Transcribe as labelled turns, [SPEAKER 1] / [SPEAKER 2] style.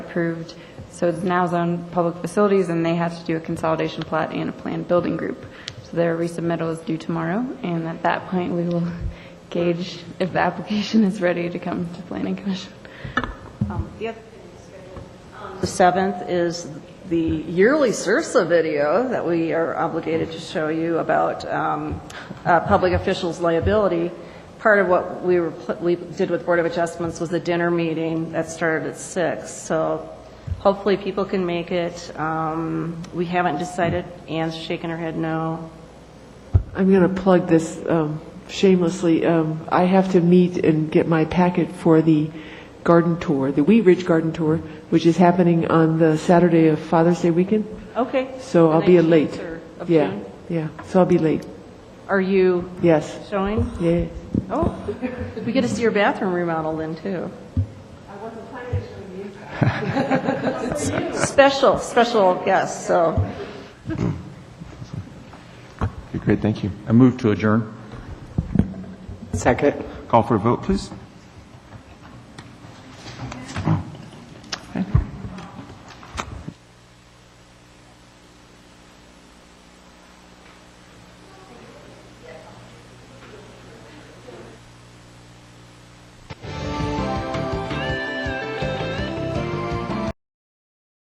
[SPEAKER 1] approved, so it's now zoned public facilities, and they had to do a consolidation plat and a planned building group. So their resubmittal is due tomorrow, and at that point, we will gauge if the application is ready to come to planning commission.
[SPEAKER 2] Um, The 7th is the yearly CIRSA video that we are obligated to show you about um, uh, public officials' liability. Part of what we were, pl- we did with Board of Adjustments was a dinner meeting that started at 6. So hopefully people can make it. Um, We haven't decided. Anne's shaking her head no.
[SPEAKER 3] I'm going to plug this um, shamelessly. Um, I have to meet and get my packet for the garden tour, the Wheat Ridge Garden Tour, which is happening on the Saturday of Father's Day weekend.
[SPEAKER 2] Okay.
[SPEAKER 3] So
[SPEAKER 2] The
[SPEAKER 3] I'll be
[SPEAKER 2] 19th
[SPEAKER 3] late.
[SPEAKER 2] or of
[SPEAKER 3] Yeah,
[SPEAKER 2] June.
[SPEAKER 3] yeah. So I'll be late.
[SPEAKER 2] Are you
[SPEAKER 3] Yes.
[SPEAKER 2] showing?
[SPEAKER 3] Yeah.
[SPEAKER 2] Oh, we get to see your bathroom remodeled then, too. I wasn't planning to show you. Special, special guest, so.
[SPEAKER 4] Okay, Great, thank you. I move to adjourn.
[SPEAKER 5] Second.
[SPEAKER 4] Call for a vote, please.